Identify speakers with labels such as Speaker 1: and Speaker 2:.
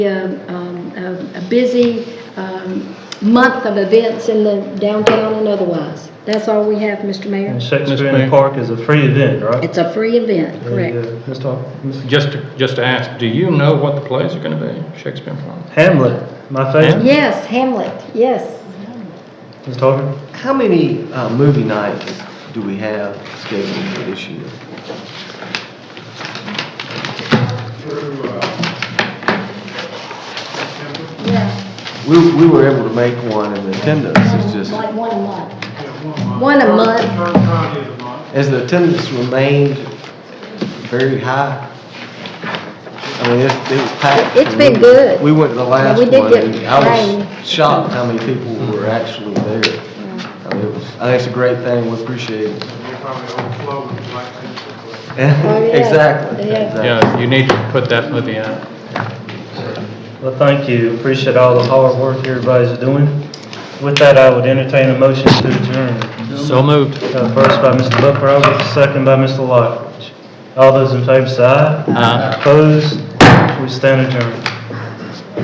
Speaker 1: a, um, a a busy um, month of events in the downtown and otherwise. That's all we have, Mr. Mayor.
Speaker 2: Shakespeare in the Park is a free event, right?
Speaker 1: It's a free event, correct?
Speaker 2: There you go. Let's talk, Mr.
Speaker 3: Just to, just to ask, do you know what the plays are going to be, Shakespeare and Florence?
Speaker 2: Hamlet, my favorite,
Speaker 1: Yes, Hamlet, yes.
Speaker 2: Ms. Tarver.
Speaker 4: How many uh, movie nights do we have scheduled for this year?
Speaker 5: through, uh, September,
Speaker 1: Yeah,
Speaker 4: We, we were able to make one and the attendance is just,
Speaker 1: one a month.
Speaker 5: yeah, one month.
Speaker 1: One a
Speaker 5: Third-
Speaker 1: month.
Speaker 5: Third Friday of the month.
Speaker 4: has the attendance remained very high? I mean, it, it was packed.
Speaker 1: It's been good.
Speaker 4: We went to the last
Speaker 1: we
Speaker 4: one
Speaker 1: did get
Speaker 4: and I
Speaker 1: rain.
Speaker 4: was shocked how many people were actually there. I mean, it was, I think it's a great thing, we appreciate it.
Speaker 5: We're probably overflowing with black people.
Speaker 1: Oh, yeah.
Speaker 4: Exactly,
Speaker 1: Yeah.
Speaker 4: exactly.
Speaker 3: Yeah, you need to put that movie out.
Speaker 2: Well, thank you, appreciate all the hard work everybody's doing. With that, I would entertain a motion to adjourn.
Speaker 3: So moved.
Speaker 2: Uh, First by Mr. Buckrover, second by Mr. Lockridge. All those in favor, say aye.
Speaker 3: Aye.
Speaker 2: Opposed, we stand adjourned.